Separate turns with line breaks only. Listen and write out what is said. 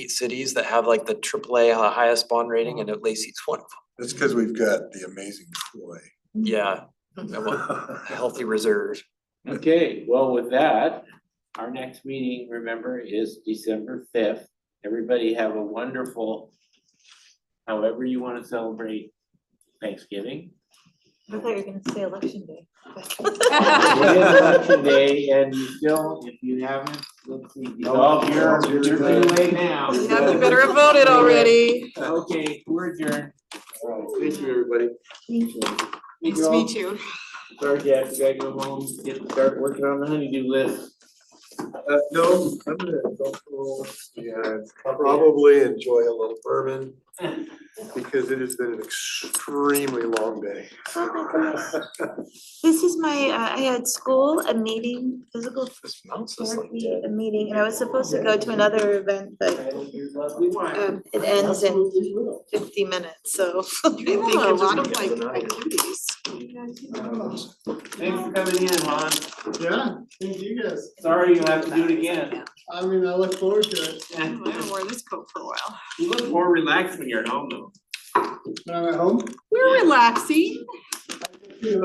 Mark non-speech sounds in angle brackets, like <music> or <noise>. cities that have like the AAA hi- highest bond rating and Lacey's one of
That's because we've got the amazing <laughs> Troy.
them. Yeah, a healthy reserve.
Okay, well, with that, our next meeting, remember, is December fifth. Everybody have a wonderful, however you wanna celebrate
<laughs>
Thanksgiving.
I thought you were gonna say election day.
It is election day and you still, if you haven't, let's see, dissolve your,
you're
you're
good.
away now.
Yeah, you better
have voted already.
Okay, we're adjourned.
Thank you, everybody.
Nice to meet you.
Sorry, Jack, you gotta go home, get, start working on the honeydew list.
Uh, no, I'm gonna go home and probably enjoy a little bourbon
<laughs>
because it has been an extremely long day.
Oh my goodness. This is my, uh, I had school, a meeting, physical
This mouse is like
therapy, a meeting, and I was supposed to go to another event, but um, it ends in fifty minutes, so. <laughs> I
You
think
have a
I'm just
lot of
gonna-
like activities.
Thanks for coming in, Lon.
Oh, Yeah, thank you guys.
Sorry, you'll have to do it again.
I mean, I look forward to it.
<laughs>
I haven't worn this coat for a while.
You look more relaxed when you're at home though.
When I'm at home,
We're relaxing.